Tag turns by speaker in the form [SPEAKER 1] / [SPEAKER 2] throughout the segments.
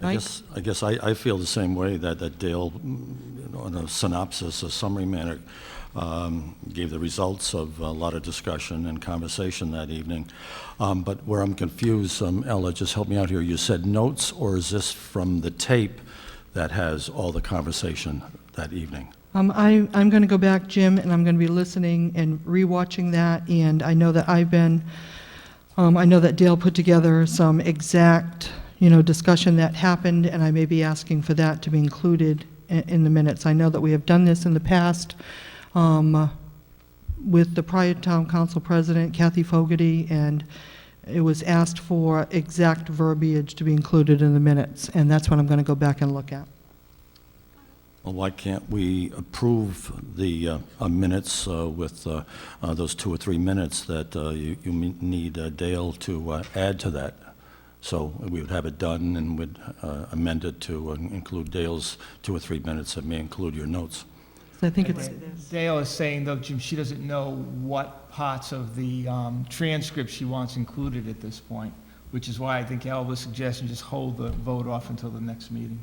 [SPEAKER 1] I
[SPEAKER 2] Mike?
[SPEAKER 1] guess, I guess I, I feel the same way that, that Dale, mm, you know, in a synopsis, a summary manner, um, gave the results of a lot of discussion and conversation that evening. Um, but where I'm confused, um, Ella, just help me out here. You said notes, or is this from the tape that has all the conversation that evening?
[SPEAKER 2] Um, I, I'm going to go back, Jim, and I'm going to be listening and rewatching that, and I know that I've been, um, I know that Dale put together some exact, you know, discussion that happened, and I may be asking for that to be included in, in the minutes. I know that we have done this in the past, um, with the prior town council president, Kathy Fogarty, and it was asked for exact verbiage to be included in the minutes, and that's what I'm going to go back and look at.
[SPEAKER 1] Well, why can't we approve the uh, uh, minutes uh, with uh, uh, those two or three minutes that uh, you you me- need uh, Dale to uh, add to that? So we would have it done and would uh, amend it to uh, include Dale's two or three minutes and may include your notes.
[SPEAKER 2] So I think it's,
[SPEAKER 3] Dale is saying, though, Jim, she doesn't know what parts of the um, transcript she wants included at this point, which is why I think Alva's suggestion, just hold the vote off until the next meeting.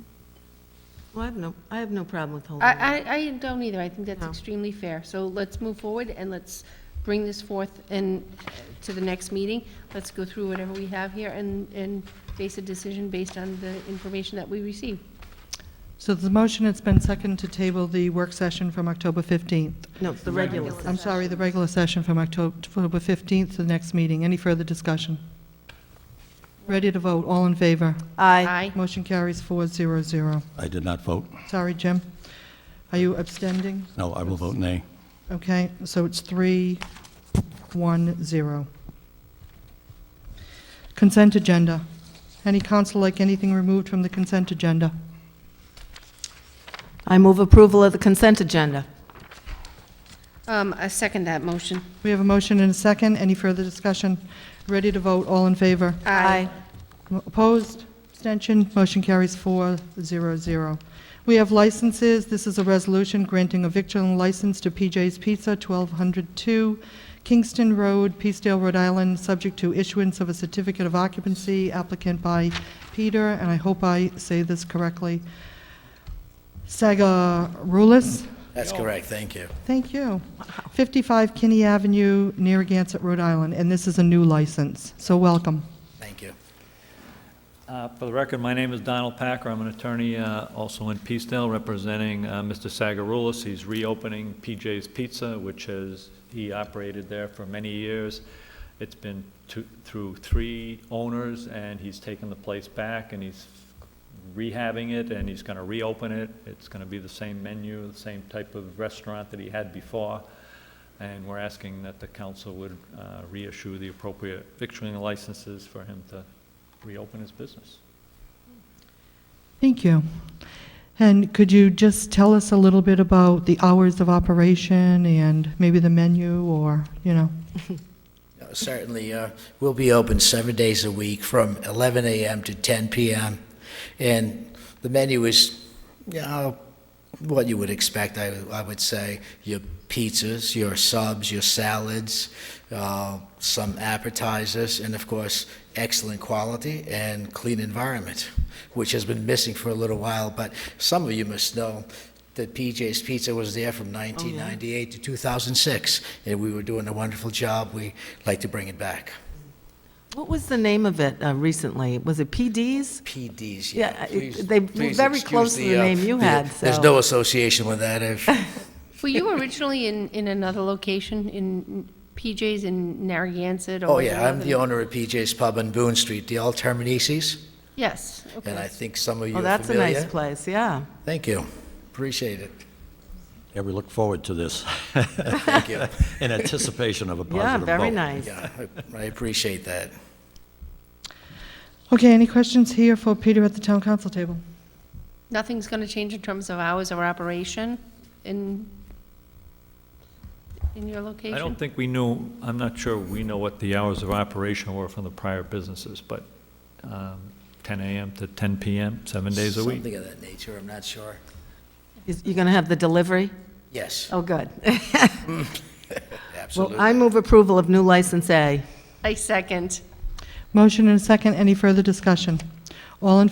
[SPEAKER 4] Well, I have no, I have no problem with holding it.
[SPEAKER 5] I, I, I don't either. I think that's
[SPEAKER 4] No.
[SPEAKER 5] extremely fair. So let's move forward and let's bring this forth and, uh, to the next meeting. Let's go through whatever we have here and, and base a decision based on the information that we receive.
[SPEAKER 2] So the motion, it's been seconded to table the work session from October 15th.
[SPEAKER 4] No, it's the regular.
[SPEAKER 5] Regular.
[SPEAKER 2] I'm sorry, the regular session from Octo- October 15th to the next meeting. Any further discussion? Ready to vote, all in favor?
[SPEAKER 4] Aye.
[SPEAKER 2] Motion carries 400.
[SPEAKER 1] I did not vote.
[SPEAKER 2] Sorry, Jim. Are you abstending?
[SPEAKER 1] No, I will vote nay.
[SPEAKER 2] Okay, so it's 310. Consent agenda. Any council like anything removed from the consent agenda?
[SPEAKER 4] I move approval of the consent agenda.
[SPEAKER 5] Um, I second that motion.
[SPEAKER 2] We have a motion and a second. Any further discussion? Ready to vote, all in favor? Opposed? Abstention? Motion carries four zero zero. We have licenses. This is a resolution granting a victualling license to PJ's Pizza, 1202 Kingston Road, Peacedale, Rhode Island, subject to issuance of a certificate of occupancy applicant by Peter, and I hope I say this correctly, Sagarulis?
[SPEAKER 6] That's correct, thank you.
[SPEAKER 2] Thank you. 55 Kinney Avenue, Narragansett, Rhode Island, and this is a new license, so welcome.
[SPEAKER 6] Thank you.
[SPEAKER 7] Uh, For the record, my name is Donald Packer. I'm an attorney uh, also in Peacedale, representing uh, Mr. Sagarulis. He's reopening PJ's Pizza, which has, he operated there for many years. It's been to- through three owners, and he's taken the place back, and he's rehabbing it, and he's going to reopen it. It's going to be the same menu, the same type of restaurant that he had before. And we're asking that the council would uh, reissue the appropriate victualling licenses for him to reopen his business.
[SPEAKER 2] Thank you. And could you just tell us a little bit about the hours of operation and maybe the menu or, you know?
[SPEAKER 6] Uh, Certainly, uh, we'll be open seven days a week from 11 a.m. to 10 p.m. And the menu is, you know, what you would expect, I I would say. Your pizzas, your subs, your salads, uh, some appetizers, and of course, excellent quality and clean environment, which has been missing for a little while. But some of you must know that PJ's Pizza was there
[SPEAKER 4] Oh,
[SPEAKER 6] from 1998 to 2006, and we were doing a wonderful job. We like to bring it back.
[SPEAKER 4] What was the name of it uh, recently? Was it PD's?
[SPEAKER 6] PDs,
[SPEAKER 4] Yeah,
[SPEAKER 6] yeah.
[SPEAKER 4] it-
[SPEAKER 6] Please-
[SPEAKER 4] they were
[SPEAKER 6] please
[SPEAKER 4] very
[SPEAKER 6] excuse
[SPEAKER 4] close to the
[SPEAKER 6] uh,
[SPEAKER 4] name you
[SPEAKER 6] the-
[SPEAKER 4] had,
[SPEAKER 6] There's
[SPEAKER 4] so-
[SPEAKER 6] no association with that. If-
[SPEAKER 5] Were you originally in, in another location, in PJ's in Narragansett? or
[SPEAKER 6] Oh,
[SPEAKER 5] was it
[SPEAKER 6] yeah, I'm
[SPEAKER 5] another-
[SPEAKER 6] the owner of PJ's Pub on Boone Street, the All Terminisi's,
[SPEAKER 5] Yes,
[SPEAKER 6] and I
[SPEAKER 5] okay.
[SPEAKER 6] think some of you
[SPEAKER 4] Oh,
[SPEAKER 6] are
[SPEAKER 4] that's a nice
[SPEAKER 6] familiar.
[SPEAKER 4] place, yeah.
[SPEAKER 6] Thank you. Appreciate it.
[SPEAKER 1] Yeah, we look forward to this.
[SPEAKER 6] Thank you.
[SPEAKER 1] In anticipation of a positive
[SPEAKER 4] Yeah,
[SPEAKER 1] vote.
[SPEAKER 4] very nice.
[SPEAKER 6] Yeah, I- I appreciate that.
[SPEAKER 2] Okay, any questions here for Peter at the town council table?
[SPEAKER 5] Nothing's going to change in terms of hours of operation in, in your location?
[SPEAKER 7] I don't think we knew, I'm not sure we know what the hours of operation were from the prior businesses, but um, 10 AM to 10 PM, seven days a week.
[SPEAKER 6] Something of that nature, I'm not sure.
[SPEAKER 4] Is- You're going to have the delivery?
[SPEAKER 6] Yes,
[SPEAKER 4] Oh, good. Well,
[SPEAKER 6] absolutely.
[SPEAKER 4] I move approval of new license A.
[SPEAKER 5] I second.
[SPEAKER 2] Motion and a second, any further discussion? All in